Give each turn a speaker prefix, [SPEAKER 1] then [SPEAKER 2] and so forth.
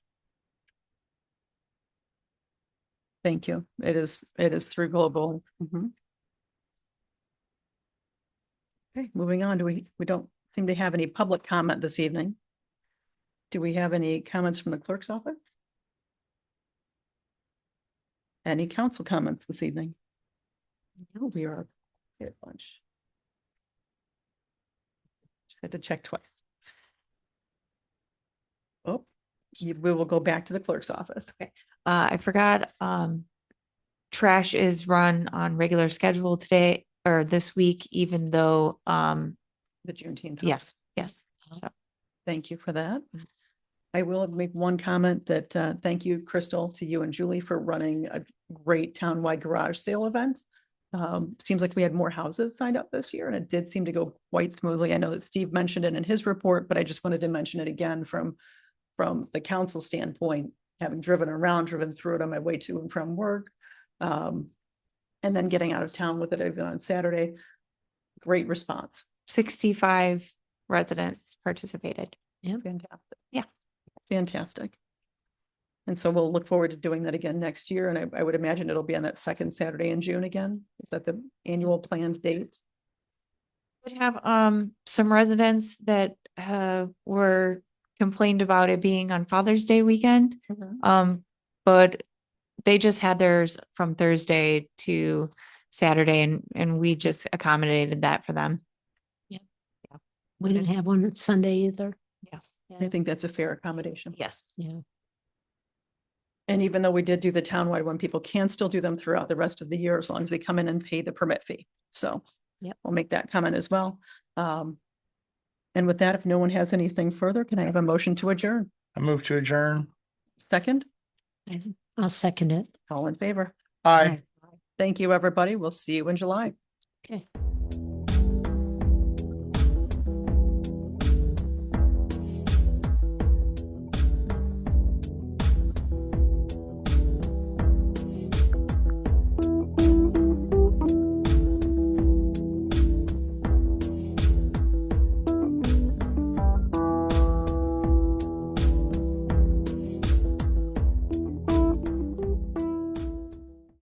[SPEAKER 1] Thank you. It is, it is through global. Mhm. Okay, moving on. Do we, we don't seem to have any public comment this evening. Do we have any comments from the clerk's office? Any council comments this evening? No, we are at lunch. Had to check twice. Oh, you- we will go back to the clerk's office.
[SPEAKER 2] Uh, I forgot, um, trash is run on regular schedule today or this week, even though, um,
[SPEAKER 1] The Juneteenth.
[SPEAKER 2] yes, yes.
[SPEAKER 1] Thank you for that. I will make one comment that, uh, thank you, Crystal, to you and Julie for running a great townwide garage sale event. Um, seems like we had more houses signed up this year and it did seem to go quite smoothly. I know that Steve mentioned it in his report, but I just wanted to mention it again from, from the council standpoint, having driven around, driven through it on my way to and from work. Um, and then getting out of town with it even on Saturday. Great response.
[SPEAKER 2] Sixty-five residents participated.
[SPEAKER 1] Fantastic.
[SPEAKER 2] Yeah.
[SPEAKER 1] Fantastic. And so we'll look forward to doing that again next year, and I, I would imagine it'll be on that second Saturday in June again. Is that the annual planned date?
[SPEAKER 2] Did have, um, some residents that, uh, were complained about it being on Father's Day weekend. Um, but they just had theirs from Thursday to Saturday and, and we just accommodated that for them.
[SPEAKER 3] We didn't have one on Sunday either.
[SPEAKER 1] I think that's a fair accommodation.
[SPEAKER 2] Yes.
[SPEAKER 3] Yeah.
[SPEAKER 1] And even though we did do the townwide one, people can still do them throughout the rest of the year as long as they come in and pay the permit fee. So.
[SPEAKER 3] Yep.
[SPEAKER 1] We'll make that comment as well. Um. And with that, if no one has anything further, can I have a motion to adjourn?
[SPEAKER 4] I move to adjourn.
[SPEAKER 1] Second,
[SPEAKER 3] I- I'll second it.
[SPEAKER 1] all in favor.
[SPEAKER 4] Aye.
[SPEAKER 1] Thank you, everybody. We'll see you in July.
[SPEAKER 3] Okay.